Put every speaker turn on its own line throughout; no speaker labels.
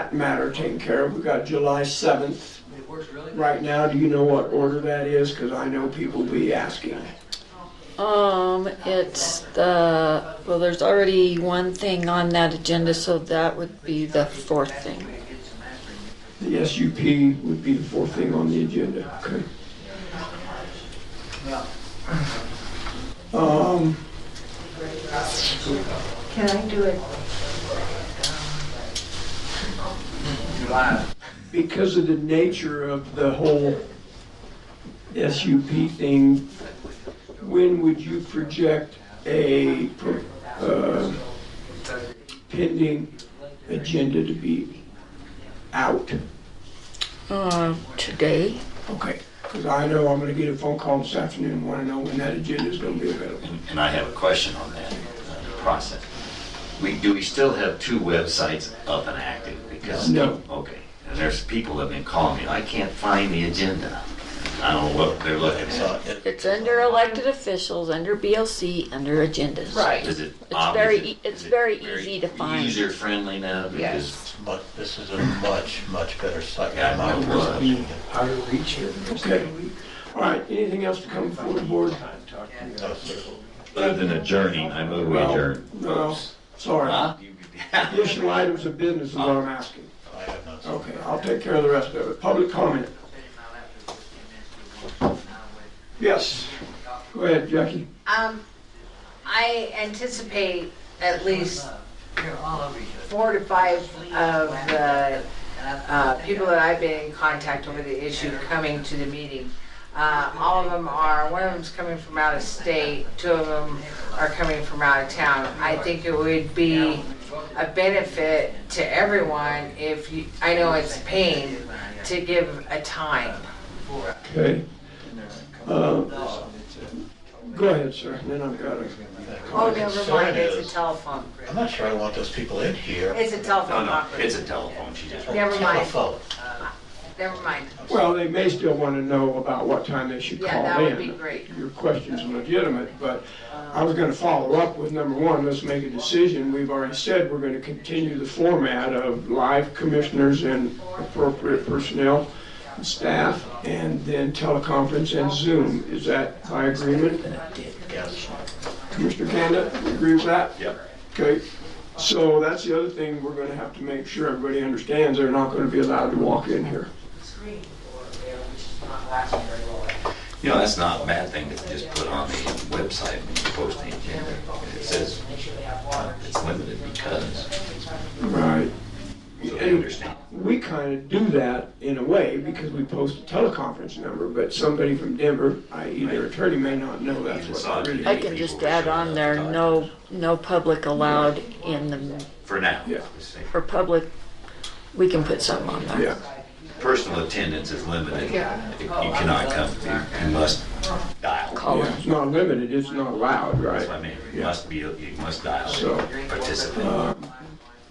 that matter taken care of. We got July 7th.
It works really good.
Right now, do you know what order that is? Because I know people will be asking.
Um, it's the, well, there's already one thing on that agenda, so that would be the fourth thing.
The SUP would be the fourth thing on the agenda. Okay. Um,
Can I do it?
July.
because of the nature of the whole SUP thing, when would you project a uh, pending agenda to be out?
Uh, today?
Okay, because I know I'm gonna get a phone call this afternoon, and wanna know when that agenda is gonna be available.
And I have a question on that uh, process. We, do we still have two websites up and active? Because
No.
Okay, and there's people that have been calling me, I can't find the agenda. I don't know what they're looking
uh,
at.
It's under elected officials, under BLC, under agendas.
Right.
Is it
It's
ob-
very
is it-
e- it's
is it
very easy to find.
User friendly now because
Yes.
But this is a much, much better site.
Yeah,
in my
it
personal
was.
opinion.
Okay, all right, anything else to come before the board?
No, sir.
Other than adjourning, I move we adjourn.
No, sorry.
Huh? You-
Additional items of business is what I'm asking.
I have none, sir.
Okay, I'll take care of the rest of it. Public comment? Yes, go ahead, Jackie.
Um, I anticipate at least
You're all over each other.
four to five of the uh, people that I've been in contact over the issue coming to the meeting. Uh, All of them are, one of them's coming from out of state, two of them are coming from out of town. I think it would be a benefit to everyone if you, I know it's a pain, to give a time.
Okay. Uh, Go ahead, sir, then I've got it.
Oh, never mind, it's a telephone.
I'm not sure I want those people in here.
It's a
No,
telephone
no, it's
conference.
a telephone, she just.
Never mind,
Telephone.
never mind.
Well, they may still want to know about what time they should
Yeah,
call
that would be
in.
great.
Your question's legitimate, but I was going to follow up with number one, let's make a decision. We've already said we're going to continue the format of live commissioners and appropriate personnel and staff, and then teleconference and Zoom. Is that by agreement?
Yes.
Commissioner Kanda, you agree with that?
Yep.
Okay, so that's the other thing we're gonna have to make sure everybody understands, they're not gonna be allowed to walk in here.
You know, that's not a bad thing to just put on the website when you post the agenda. It says uh, it's limited because,
Right.
so they understand.
We kinda do that in a way, because we post a teleconference number, but somebody from Denver, i.e. their attorney, may not know that's what it
I
really.
can just add on there, no, no public allowed in the,
For now.
Yeah.
or public, we can put something on there.
Yeah,
Personal attendance is limited. You cannot come, you- you must dial.
Call
yeah,
it.
it's not limited, it's not allowed,
That's what I
right?
mean, you must be, you must dial,
So,
participate.
Um,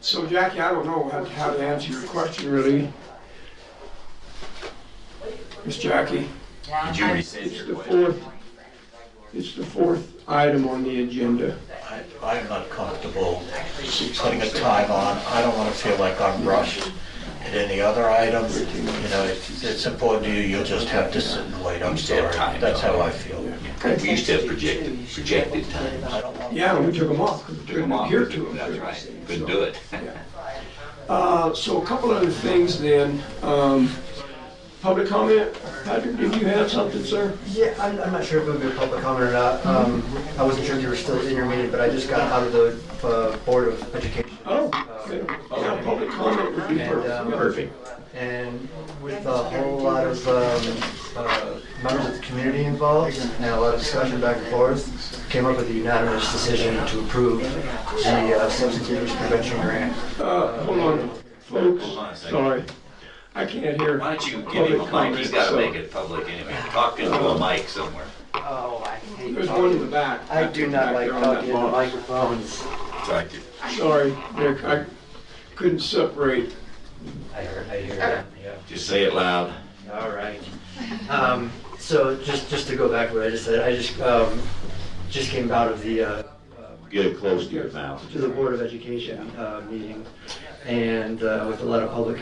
So Jackie, I don't know how- how to answer your question really. Miss Jackie?
Did you rescind
It's the
your question?
fourth, it's the fourth item on the agenda.
I, I am not comfortable putting a time on. I don't want to feel like I'm rushed at any other item. You know, if it's important to you, you'll just have to sit and wait. I'm
You still have
sorry.
time,
That's
though.
how I feel.
We used to have projected, projected times.
I don't want
Yeah, and we took them off, 'cause we
Took
couldn't
'em off.
adhere to them.
That's right, couldn't do it.
Uh, so a couple other things then, um, public comment, Patrick, did you have something, sir?
Yeah, I'm, I'm not sure if it would be a public comment or not. Um, I wasn't sure if you were still in your meeting, but I just got out of the, uh, Board of Education.
Oh, okay, yeah, public comment would be
um,
perfect.
And with a whole lot of, um, uh, members of the community involved and a lot of discussion back and forth, came up with a unanimous decision to approve the uh, substance abuse prevention grant.
Uh, hold on,
Hold on a
folks,
second.
sorry, I can't hear.
Why don't you give him a mic? He's got to
public
make
comment,
it public anyway. Talk into a mic somewhere.
Oh, I
so-
hate
There's one in the back.
I do not like
Back there on that
talking into
box.
microphones.
Try to.
Sorry, Nick, I couldn't separate.
I heard, I hear that, yeah.
Just say it loud.
All right. Um, so just just to go back to what I just said, I just um, just came out of the uh,
Get it close to your mouth.
to the Board of Education uh, meeting, and uh, with a lot of public